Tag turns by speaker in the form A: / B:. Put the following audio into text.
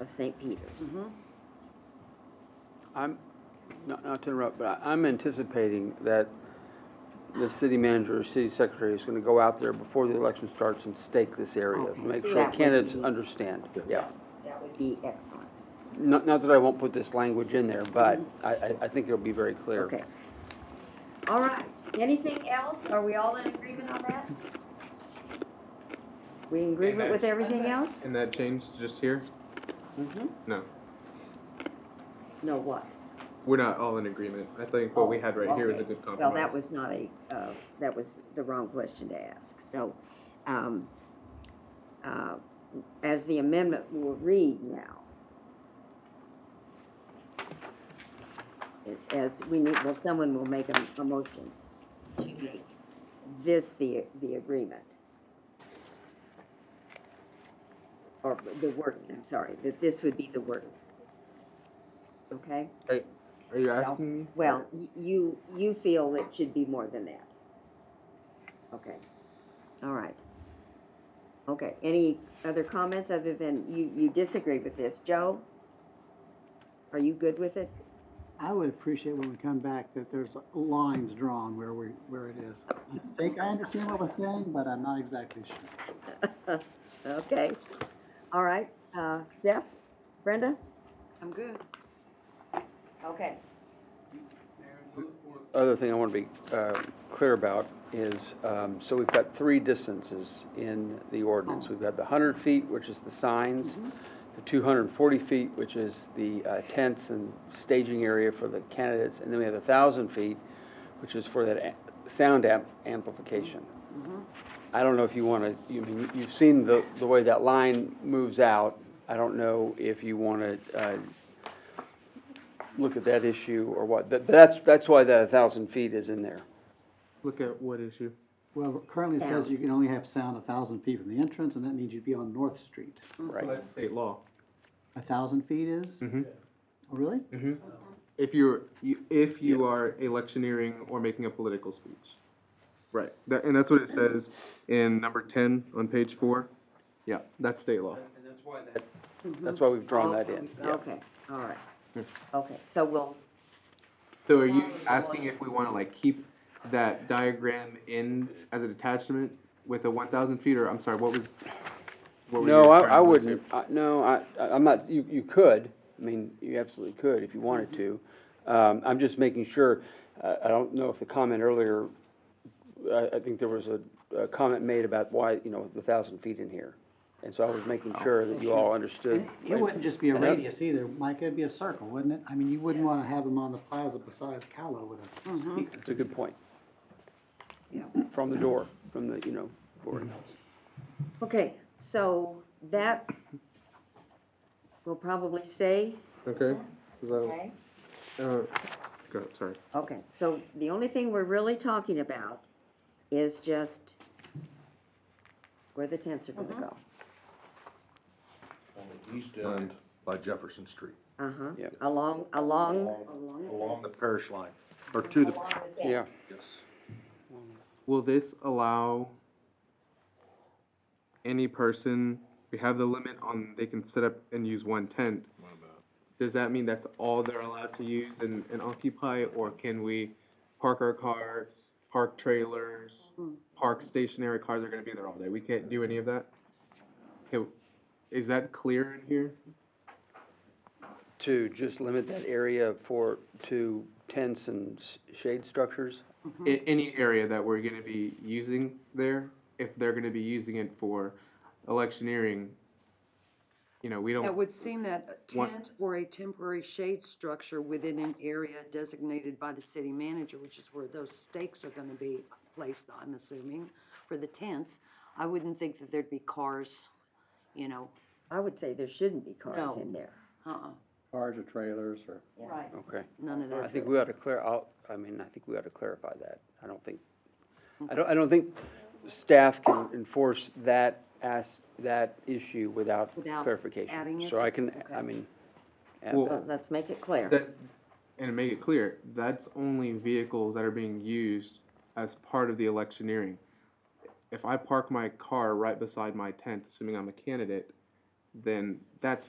A: of St. Peter's.
B: I'm, not, not to interrupt, but I'm anticipating that the city manager or city secretary is gonna go out there before the election starts and stake this area,
A: Okay.
B: make sure
A: That would
B: candidates
A: be-
B: understand, yeah.
A: That would be excellent.
B: Not, not that I won't put this language in there, but I, I, I think it'll be very clear.
A: Okay. All right, anything else? Are we all in agreement on that? We in agreement with everything else?
C: And that changed just here?
A: Mhm.
C: No,
A: No, what?
C: we're not all in agreement. I think what we had right here was a
A: Okay.
C: good compromise.
A: Well, that was not a, uh, that was the wrong question to ask, so, um, uh, as the amendment will read now. it- As we need, well, someone will make a, a motion to make this the, the agreement. Or the wording, I'm sorry, that this would be the wording. Okay?
C: Are, are you asking me?
A: Well, y- you, you feel it should be more than that. Okay, all right. Okay, any other comments other than you, you disagree with this? Joe? Are you good with it?
D: I would appreciate when we come back that there's lines drawn where we, where it is. I think I understand what we're saying, but I'm not exactly sure.
A: Okay, all right, uh, Jeff? Brenda?
E: I'm good.
A: Okay.
B: Other thing I want to be uh, clear about is, um, so we've got three distances in the ordinance. We've got the 100 feet, which is the signs, the 240 feet, which is the uh, tents and staging area for the candidates, and then we have the 1,000 feet, which is for that a- sound amp- amplification. I don't know if you want to, you mean, you've seen the, the way that line moves out. I don't know if you want to look at that issue or what. That, that's, that's why that 1,000 feet is in there.
C: Look at what issue?
D: Well, currently it says
A: Sound.
D: you can only have sound a thousand feet from the entrance, and that means you'd be on North Street.
B: Right.
C: That's state law.
D: A thousand feet is? Mm-hmm. Oh, really?
C: If you're, you, if you are electioneering or making a political speech. Right, that, and that's what it says in number ten on page four. Yeah, that's state law.
B: That's why we've drawn that in, yeah.
A: Okay, all right. Okay, so we'll,
C: So are you asking if we wanna like keep that diagram in as a detachment with a one thousand feet, or I'm sorry, what was? what were you
B: No,
C: referring
B: I, I
C: to?
B: wouldn't, I, no, I, I- I'm not, you, you could, I mean, you absolutely could if you wanted to. Um, I'm just making sure, I, I don't know if the comment earlier, I, I think there was a, a comment made about why, you know, the thousand feet in here. And so I was making sure that you all understood.
D: It wouldn't just be a
B: Yep.
D: radius either, Mike, it'd be a circle, wouldn't it? I mean, you wouldn't wanna have them on the plaza beside Cala with a speaker.
B: It's a good point,
E: Yeah.
B: from the door, from the, you know, boarding house.
A: okay, so that will probably stay,
C: Okay, so that,
A: okay?
C: uh, go, ahead, sorry.
A: Okay, so the only thing we're really talking about is just where the tents are
E: Uh-huh.
A: gonna go.
F: on the east end by Jefferson Street,
A: Uh-huh,
B: Yep.
A: along, along.
F: along the parish line, or to the,
B: Yeah.
F: yes.
C: Will this allow any person, we have the limit on, they can set up and use one tent. Does that mean that's all they're allowed to use and, and occupy, or can we park our cars, park trailers, park stationary cars are gonna be there all day? We can't do any of that? Okay, is that clear in here?
B: To just limit that area for, to tents and s- shade structures?
C: I- any area that we're gonna be using there, if they're gonna be using it for electioneering, you know, we don't.
E: It would seem that a
C: One-
E: tent or a temporary shade structure within an area designated by the city manager, which is where those stakes are gonna be placed, I'm assuming, for the tents, I wouldn't think that there'd be cars, you know,
A: I would say there shouldn't be cars
E: No.
A: in there.
E: uh-uh,
D: Cars or trailers or.
E: right,
B: Okay.
E: none of
B: I
E: that.
B: think we ought to clear, I'll, I mean, I think we ought to clarify that. I don't think, I don't, I don't think staff can enforce that as, that issue without
E: Without
B: clarification.
E: adding it?
B: So I can, I mean, add
C: Well,
B: that.
A: Well, Let's make it clear.
C: That, and to make it clear, that's only vehicles that are being used as part of the electioneering. If I park my car right beside my tent, assuming I'm a candidate, then that's